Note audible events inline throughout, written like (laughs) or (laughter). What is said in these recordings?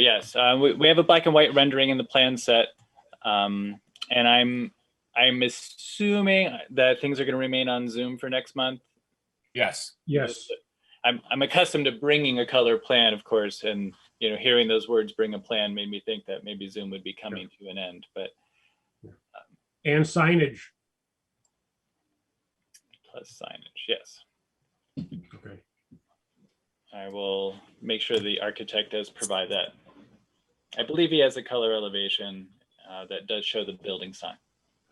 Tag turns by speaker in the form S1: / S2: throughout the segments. S1: Yes, uh, we, we have a black and white rendering in the plan set, um, and I'm I'm assuming that things are going to remain on Zoom for next month.
S2: Yes,
S3: Yes,
S1: I'm I'm accustomed to bringing a color plan, of course, and you know hearing those words "bring a plan" made me think that maybe Zoom would be coming to an end. But
S3: and signage.
S1: plus signage, yes,
S3: Okay.
S1: I will make sure the architect does provide that. I believe he has a color elevation uh, that does show the building sign.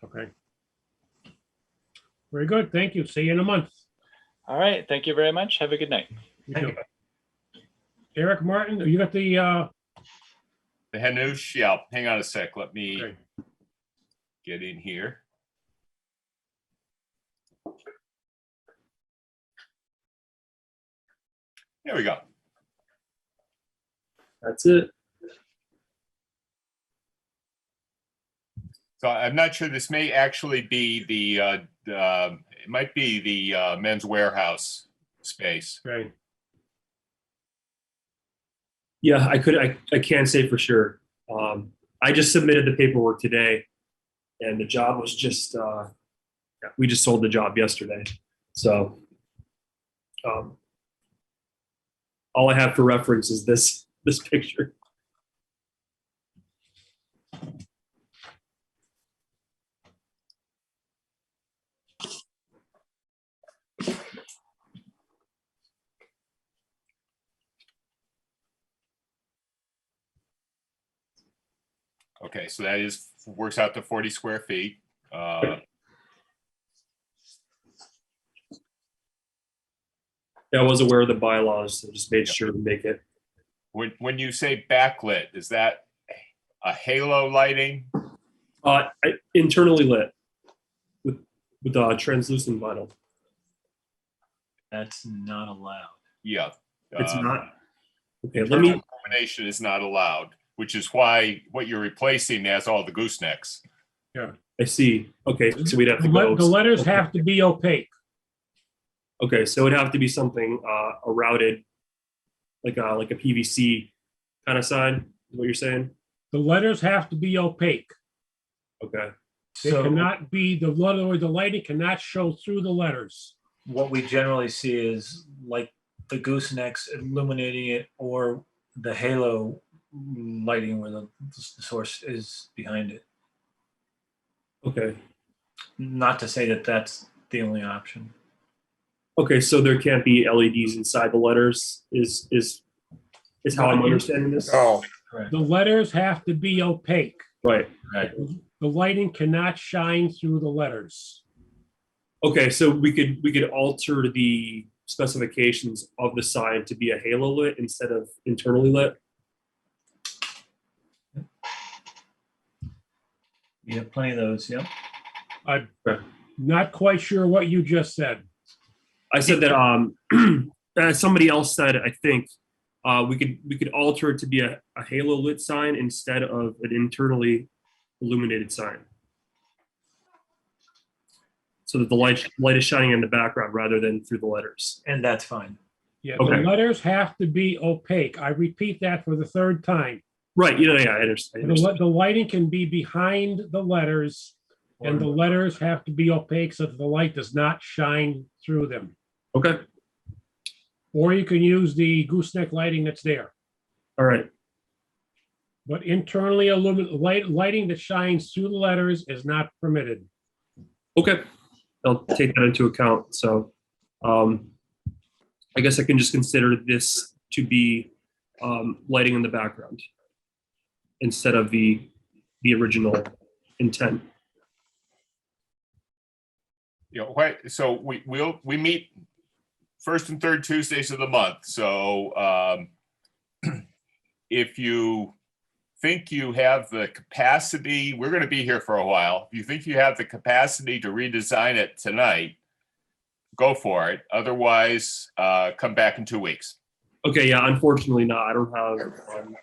S3: Okay. Very good. Thank you. See you in a month.
S1: All right, thank you very much. Have a good night.
S3: You too. Eric Martin, you got the, uh,
S2: the Hanoush Yelp. Hang on a sec. Let me
S3: okay.
S2: get in here. There we go.
S4: That's it.
S2: So I'm not sure, this may actually be the, uh, uh, it might be the uh, men's warehouse space.
S3: okay.
S4: Yeah, I could, I, I can't say for sure. Um, I just submitted the paperwork today and the job was just, uh, yeah, we just sold the job yesterday. So, um, all I have for reference is this, (laughs) this picture.
S2: Okay, so that is, works out to 40 square feet. Uh,
S4: Yeah, I was aware of the bylaws, so just made sure to make it.
S2: When, when you say backlit, is that a halo lighting?
S4: Uh, I- internally lit with, with, uh, translucent vinyl.
S5: That's not allowed.
S2: Yeah.
S4: It's
S2: uh,
S4: not. Okay, let me,
S2: Illumination is not allowed, which is why what you're replacing has all the goosenecks.
S4: I see. Okay, so we'd have
S3: The
S4: to go.
S3: le- the letters have to be opaque.
S4: Okay, so it'd have to be something uh, a routed, like a like a PVC kind of sign. Is what you're saying?
S3: The letters have to be opaque.
S4: Okay.
S3: They
S5: So
S3: cannot be, the, in other words, the lighting cannot show through the letters.
S5: what we generally see is like the goosenecks illuminating it or the halo lighting where the, the source is behind it.
S4: Okay.
S5: Not to say that that's the only option.
S4: Okay. So there can't be LEDs inside the letters. Is is is how I'm understanding this?
S2: Oh.
S5: Correct.
S3: The letters have to be opaque.
S4: Right.
S5: Right.
S3: The lighting cannot shine through the letters.
S4: Okay. So we could we could alter the specifications of the sign to be a halo lit instead of internally lit.
S5: You have plenty of those. Yep.
S3: I'm
S4: Okay.
S3: not quite sure what you just said.
S4: I said that um (clears throat) uh, somebody else said I think uh, we could we could alter it to be a, a halo lit sign instead of an internally illuminated sign. So that the light light is shining in the background rather than through the letters.
S5: And that's fine.
S3: Yeah, the
S4: Okay.
S3: letters have to be opaque. I repeat that for the third time.
S4: Right, you know, yeah, I understand. I
S3: The
S4: understand.
S3: li- the lighting can be behind the letters and the letters have to be opaque so that the light does not shine through them.
S4: Okay.
S3: Or you can use the gooseneck lighting that's there.
S4: All right.
S3: But internally illuminated light, lighting that shines through the letters is not permitted.
S4: Okay. I'll take that into account. So um, I guess I can just consider this to be um, lighting in the background instead of the the original intent.
S2: You know, why- so we, we'll, we meet first and third Tuesdays of the month, so, um, (clears throat) if you think you have the capacity, we're gonna be here for a while. If you think you have the capacity to redesign it tonight, go for it. Otherwise, uh, come back in two weeks.
S4: Okay, yeah, unfortunately not. I don't have um,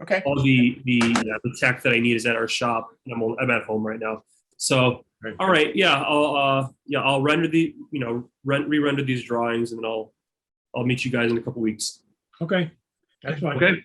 S2: Okay,
S4: all the the yeah, the tech that I need is at our shop and I'm, I'm at home right now. So
S3: Right.
S4: all right, yeah, I'll uh, yeah, I'll render the you know rent re-render these drawings and then I'll I'll meet you guys in a couple weeks.
S3: Okay,
S6: That's fine.
S4: Okay.